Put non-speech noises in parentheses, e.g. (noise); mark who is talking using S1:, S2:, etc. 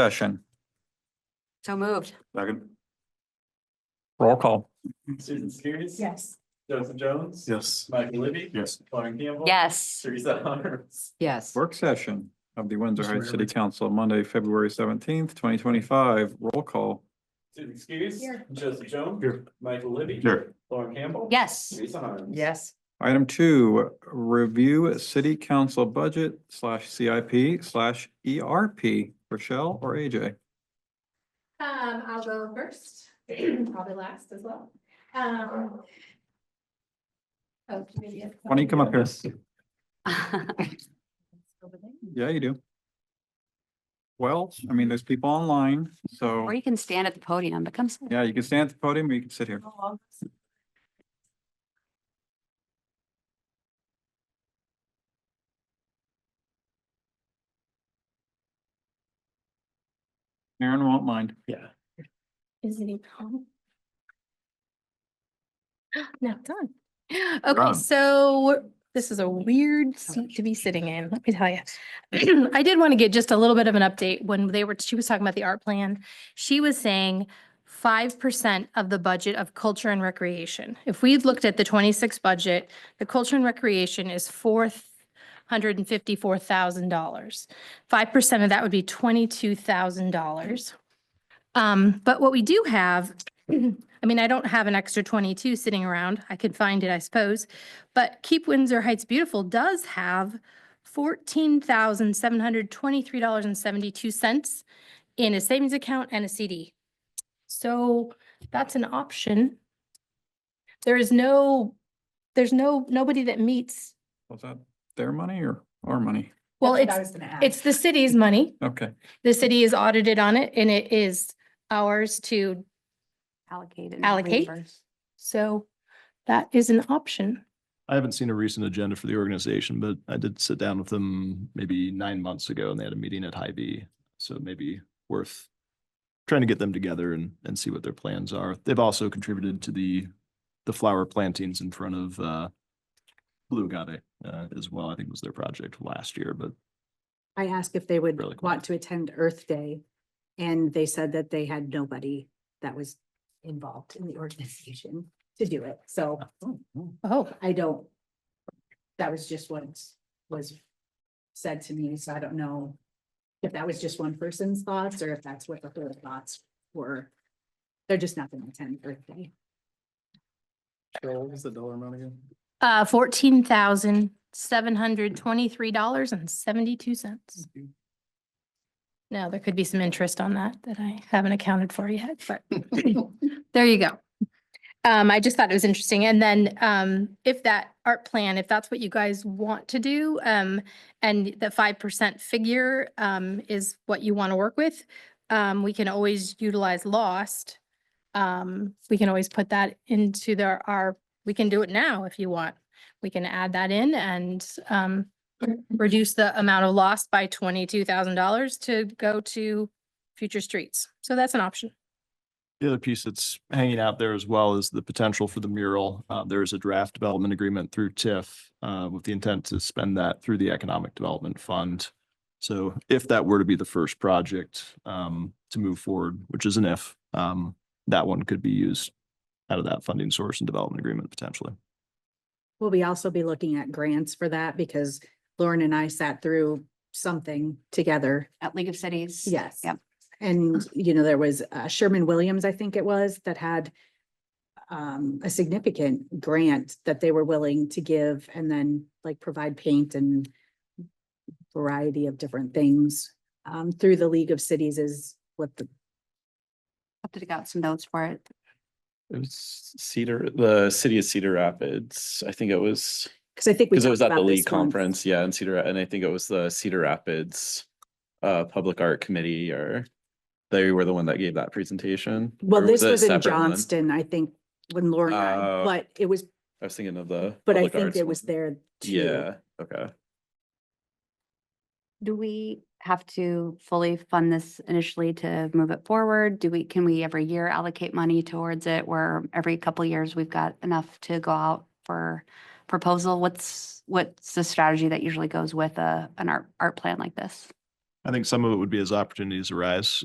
S1: session.
S2: So moved.
S3: Second.
S1: Roll call.
S4: Susan Skiris.
S2: Yes.
S4: Joseph Jones.
S3: Yes.
S4: Michael Libby.
S3: Yes.
S4: Lauren Campbell.
S2: Yes,
S4: Teresa Harms.
S2: yes.
S1: Work session of the Windsor Heights City Council, Monday, February seventeenth, twenty twenty-five. Roll call.
S4: Susan Skiris.
S2: Here.
S4: Joseph Jones.
S3: Here.
S4: Michael Libby.
S3: Here.
S4: Lauren Campbell.
S2: Yes.
S4: Teresa Harms.
S2: Yes.
S1: Item two, review city council budget slash CIP slash ERP. Rochelle or AJ?
S5: Um, I'll go first, (clears throat) probably last as well. Um. oh, maybe it's-
S1: Why don't you come up here?
S5: Over there.
S1: Yeah, you do. Well, I mean, there's people online, so
S2: (laughs) Or you can stand at the podium, but come sit.
S1: yeah, you can stand at the podium or you can sit here. Aaron won't mind.
S4: Yeah.
S5: Is it even on? (gasps) No, it's on.
S3: on.
S5: Okay, so this is a weird seat to be sitting in, let me tell you. (clears throat) I did want to get just a little bit of an update when they were, she was talking about the art plan. She was saying five percent of the budget of culture and recreation. If we looked at the twenty-six budget, the culture and recreation is four hundred and fifty-four thousand dollars. Five percent of that would be twenty-two thousand dollars. Um, but what we do have, (clears throat) I mean, I don't have an extra twenty-two sitting around. I could find it, I suppose. But Keep Windsor Heights Beautiful does have fourteen thousand seven hundred twenty-three dollars and seventy-two cents in a savings account and a CD. So that's an option. There is no, there's no, nobody that meets,
S1: Was that their money or our money?
S5: well, it's, it's the city's money.
S1: Okay.
S5: The city is audited on it and it is ours to,
S2: Allocate. and
S5: Allocate.
S2: reimburse.
S5: so that is an option.
S6: I haven't seen a recent agenda for the organization, but I did sit down with them maybe nine months ago and they had a meeting at Hy-Vee. So maybe worth trying to get them together and, and see what their plans are. They've also contributed to the, the flower plantings in front of, uh, Blue Agave, uh, as well, I think was their project last year, but
S7: I asked if they would
S6: Really cool.
S7: want to attend Earth Day, and they said that they had nobody that was involved in the organization to do it, so
S5: Oh,
S7: I don't. That was just what was said to me, so I don't know if that was just one person's thoughts or if that's what the whole thoughts were. They're just not gonna attend Earth Day.
S4: What was the dollar amount again?
S5: uh, fourteen thousand, seven hundred twenty-three dollars and seventy-two cents. Now, there could be some interest on that that I haven't accounted for yet, but there you go. Um, I just thought it was interesting. And then, um, if that art plan, if that's what you guys want to do, um, and the five percent figure, um, is what you want to work with, um, we can always utilize lost. Um, we can always put that into their, our, we can do it now if you want. We can add that in and, um, reduce the amount of loss by twenty-two thousand dollars to go to future streets. So that's an option.
S6: The other piece that's hanging out there as well is the potential for the mural. Uh, there is a draft development agreement through TIF uh, with the intent to spend that through the Economic Development Fund. So if that were to be the first project um, to move forward, which is an if, um, that one could be used out of that funding source and development agreement potentially.
S7: Will we also be looking at grants for that, because Lauren and I sat through something together
S2: At League of Cities.
S7: Yes.
S2: Yep.
S7: And, you know, there was uh, Sherman Williams, I think it was, that had um, a significant grant that they were willing to give and then like provide paint and variety of different things um, through the League of Cities is what the,
S2: Have to dig out some notes for it.
S8: It was Cedar, the city of Cedar Rapids. I think it was,
S7: because I think. we
S8: because it
S7: talked
S8: was at the
S7: about this
S8: League
S7: one.
S8: Conference, yeah, in Cedar, and I think it was the Cedar Rapids uh, Public Art Committee or they were the one that gave that presentation.
S7: Well,
S8: or
S7: this
S8: it a
S7: was in
S8: separate one?
S7: Johnston, I think, when Lauren, and I-
S8: Oh.
S7: but it was,
S8: I was thinking of the.
S7: but I
S8: public
S7: think
S8: arts
S7: it was
S8: one.
S7: there too.
S8: Yeah, okay.
S2: Do we have to fully fund this initially to move it forward? Do we, can we every year allocate money towards it where every couple years we've got enough to go out for proposal? What's, what's the strategy that usually goes with a, an art, art plan like this?
S6: I think some of it would be as opportunities arise.